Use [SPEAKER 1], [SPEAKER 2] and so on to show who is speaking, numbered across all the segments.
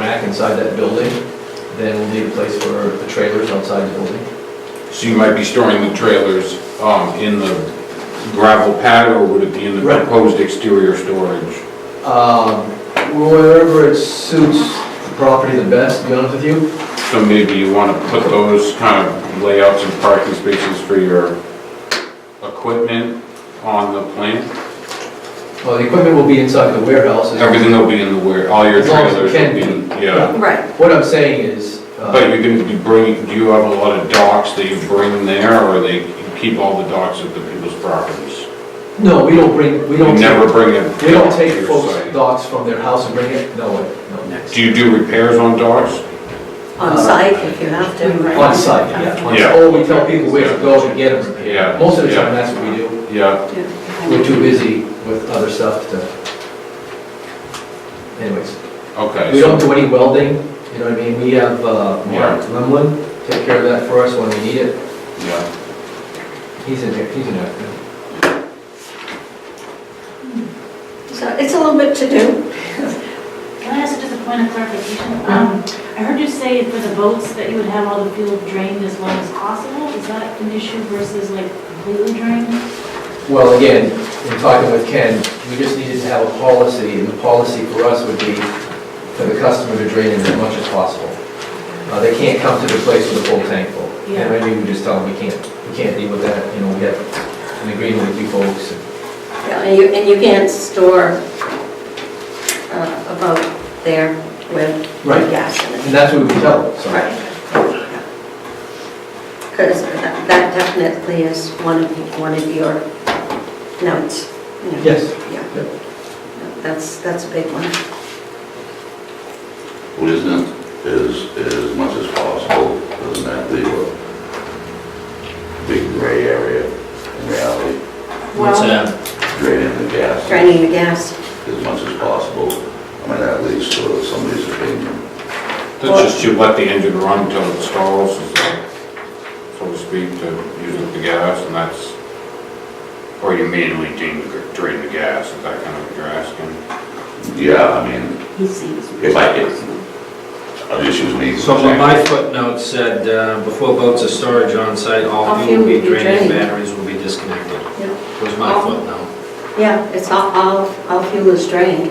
[SPEAKER 1] back inside that building, then we'll need a place for the trailers outside the building.
[SPEAKER 2] So you might be storing the trailers um, in the gravel pad, or would it be in the
[SPEAKER 1] Right.
[SPEAKER 2] proposed exterior storage?
[SPEAKER 1] Um, Wherever it suits the property the best, to be honest with you.
[SPEAKER 2] So maybe you want to put those kind of layouts and parking spaces for your equipment on the plan?
[SPEAKER 1] Well, the equipment will be inside the warehouse. as-
[SPEAKER 2] Everything will be in the ware, all your
[SPEAKER 1] As long as it
[SPEAKER 2] trailers will
[SPEAKER 1] can
[SPEAKER 2] be,
[SPEAKER 1] be.
[SPEAKER 2] in- yeah.
[SPEAKER 3] Right,
[SPEAKER 1] What I'm saying is, uh,
[SPEAKER 2] But you're going to be bringing, do you have a lot of docks that you bring there, or they keep all the docks at the people's properties?
[SPEAKER 1] no, we don't bring, we
[SPEAKER 2] You
[SPEAKER 1] don't,
[SPEAKER 2] never
[SPEAKER 1] take-
[SPEAKER 2] bring it.
[SPEAKER 1] we don't take
[SPEAKER 2] to your
[SPEAKER 1] folks'
[SPEAKER 2] site.
[SPEAKER 1] dogs from their house and bring it, no, no.
[SPEAKER 2] Do you do repairs on docks?
[SPEAKER 3] on site if you have to. right?
[SPEAKER 1] Uh, On site, yeah. on-
[SPEAKER 2] Yeah.
[SPEAKER 1] Or we tell people where to go to get them repaired.
[SPEAKER 2] Yeah.
[SPEAKER 1] Most of the
[SPEAKER 2] Yeah.
[SPEAKER 1] time, that's what we do.
[SPEAKER 2] Yeah,
[SPEAKER 1] We're
[SPEAKER 3] Yeah.
[SPEAKER 1] too busy with other stuff to... Anyways,
[SPEAKER 2] okay.
[SPEAKER 1] we
[SPEAKER 2] so-
[SPEAKER 1] don't do any welding, you know what I mean? We have uh, Mark
[SPEAKER 2] Yeah.
[SPEAKER 1] Limlin take care of that for us when we need it.
[SPEAKER 2] Yeah,
[SPEAKER 1] He's in there, he's in there.
[SPEAKER 3] So it's a little bit to do.
[SPEAKER 4] Can I ask just a point of clarification? Um, I heard you say for the boats that you would have all the fuel drained as well as possible. Is that an issue versus like completely drained?
[SPEAKER 1] Well, again, in talking with Ken, we just needed to have a policy, and the policy for us would be for the customer to drain in as much as possible. Uh, They can't come to the place with a full tank full.
[SPEAKER 4] Yeah.
[SPEAKER 1] And maybe we just tell them, we can't, we can't deal with that, you know, we have an agreement with you folks.
[SPEAKER 3] Yeah, And you, and you can't store uh, a boat there with
[SPEAKER 1] Right.
[SPEAKER 3] gas in it.
[SPEAKER 1] And that's what we would tell them, so.
[SPEAKER 3] Right. Because that that definitely is one of, the- one of your notes. you know.
[SPEAKER 1] Yes.
[SPEAKER 3] Yeah,
[SPEAKER 1] Yep.
[SPEAKER 3] that's, that's a big one.
[SPEAKER 5] Wisdom is, is as much as possible, isn't that the big gray area in reality?
[SPEAKER 4] Well,
[SPEAKER 5] Draining the gas
[SPEAKER 3] Draining the gas.
[SPEAKER 5] as much as possible. I mean, that leads to somebody's opinion.
[SPEAKER 2] that's just you let the engine run till it stalls, is that, so to speak, to use up the gas, and that's, or you manually drain, the- drain the gas, is that kind of what you're asking?
[SPEAKER 5] Yeah, I mean,
[SPEAKER 3] He sees.
[SPEAKER 5] if I, if, I'll just use me. as an
[SPEAKER 6] So my-
[SPEAKER 5] example.
[SPEAKER 6] my footnote said, uh, before boats are storage on site, all fuel will be drained and batteries will be disconnected. Was my footnote.
[SPEAKER 3] Yeah, it's all, all, all fuel is drained.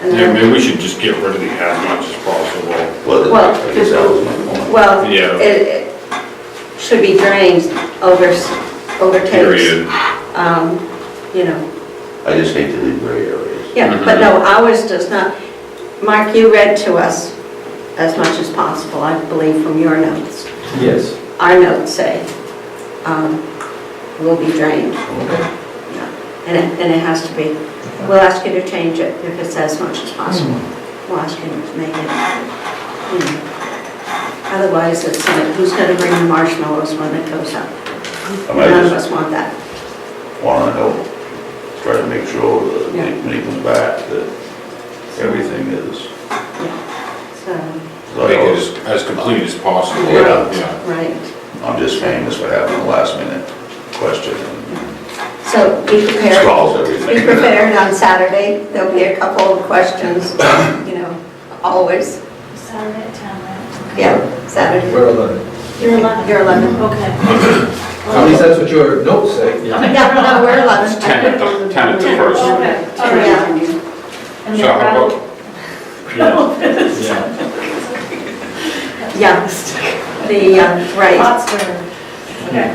[SPEAKER 3] And
[SPEAKER 2] Yeah,
[SPEAKER 3] then,
[SPEAKER 2] maybe we should just get rid of the as much as possible.
[SPEAKER 5] Well,
[SPEAKER 3] Well,
[SPEAKER 5] I guess that was my point.
[SPEAKER 3] well,
[SPEAKER 2] Yeah.
[SPEAKER 3] it, it should be drained over, s- overtakes,
[SPEAKER 2] Period.
[SPEAKER 3] um, you know.
[SPEAKER 5] I just hate to leave gray areas.
[SPEAKER 2] Mm-hmm.
[SPEAKER 3] Yeah, but no, ours does not. Mark, you read to us as much as possible, I believe, from your notes.
[SPEAKER 1] Yes.
[SPEAKER 3] Our notes say, um, will be drained.
[SPEAKER 1] Okay.
[SPEAKER 3] And it, and it has to be, we'll ask you to change it if it's as much as possible. We'll ask you to make it, you know. Otherwise, it's like, who's gonna bring the marshmallows when it goes up?
[SPEAKER 5] I mean,
[SPEAKER 3] None
[SPEAKER 5] I
[SPEAKER 3] of
[SPEAKER 5] just
[SPEAKER 3] us want that.
[SPEAKER 5] wanna help, try to make sure that
[SPEAKER 3] Yeah.
[SPEAKER 5] when he comes back, that everything is.
[SPEAKER 3] So,
[SPEAKER 2] Make it as, as complete as possible.
[SPEAKER 5] Yeah.
[SPEAKER 2] Yeah.
[SPEAKER 3] right.
[SPEAKER 5] I'm just famous for having a last minute question.
[SPEAKER 3] So be prepared.
[SPEAKER 5] Scrawls everything.
[SPEAKER 3] Be prepared on Saturday. There'll be a couple of questions, you know, always.
[SPEAKER 4] Saturday at 10, right?
[SPEAKER 3] Yeah, Saturday.
[SPEAKER 1] We're eleven.
[SPEAKER 4] You're 11.
[SPEAKER 3] You're 11.
[SPEAKER 4] Okay.
[SPEAKER 1] At least that's what your notes say.
[SPEAKER 3] Yeah, no, we're 11.
[SPEAKER 2] Ten at the, ten at the
[SPEAKER 3] Ten.
[SPEAKER 2] first.
[SPEAKER 4] Okay, all right.
[SPEAKER 2] So
[SPEAKER 4] And then
[SPEAKER 2] how
[SPEAKER 4] gravel,
[SPEAKER 2] about,
[SPEAKER 6] Yeah.
[SPEAKER 3] Yeah, the, uh, right.
[SPEAKER 4] lots of, okay,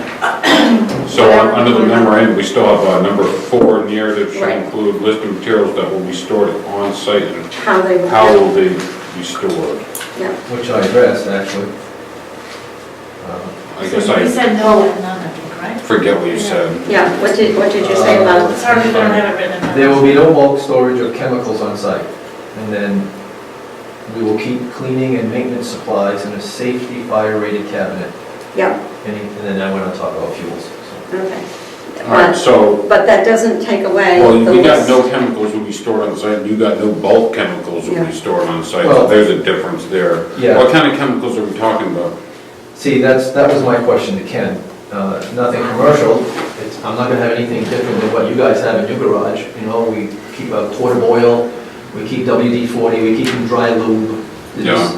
[SPEAKER 2] so on- under the memorandum, we still have uh, number four narrative should
[SPEAKER 3] Right.
[SPEAKER 2] include list of materials that will be stored on site and
[SPEAKER 3] How they will.
[SPEAKER 2] How will they be stored?
[SPEAKER 3] Yeah,
[SPEAKER 1] Which I addressed, actually. Um,
[SPEAKER 2] I guess
[SPEAKER 4] so you
[SPEAKER 2] I
[SPEAKER 4] said no and none, I think, right?
[SPEAKER 2] forget what you said.
[SPEAKER 3] yeah, what did, what did you say about?
[SPEAKER 4] It's hard if you don't have it written in.
[SPEAKER 1] There will be no bulk storage of chemicals on site. And then we will keep cleaning and maintenance supplies in a safety fire-rated cabinet.
[SPEAKER 3] Yeah,
[SPEAKER 1] And he- and then I went on to talk about fuels. so.
[SPEAKER 3] okay.
[SPEAKER 2] All right,
[SPEAKER 3] But,
[SPEAKER 2] so,
[SPEAKER 3] but that doesn't take away
[SPEAKER 2] well,
[SPEAKER 3] the
[SPEAKER 2] we got
[SPEAKER 3] list.
[SPEAKER 2] no chemicals will be stored on site, you got no bulk chemicals will
[SPEAKER 3] Yeah.
[SPEAKER 2] be stored on site,
[SPEAKER 1] Well-
[SPEAKER 2] so there's a difference there.
[SPEAKER 1] Yeah.
[SPEAKER 2] What kind of chemicals are we talking about?
[SPEAKER 1] See, that's, that was my question to Ken. Uh, Nothing commercial, it's, I'm not gonna have anything different than what you guys have in your garage. You know, we keep a quart of oil, we keep WD-40, we keep some dry lube,
[SPEAKER 2] Yeah.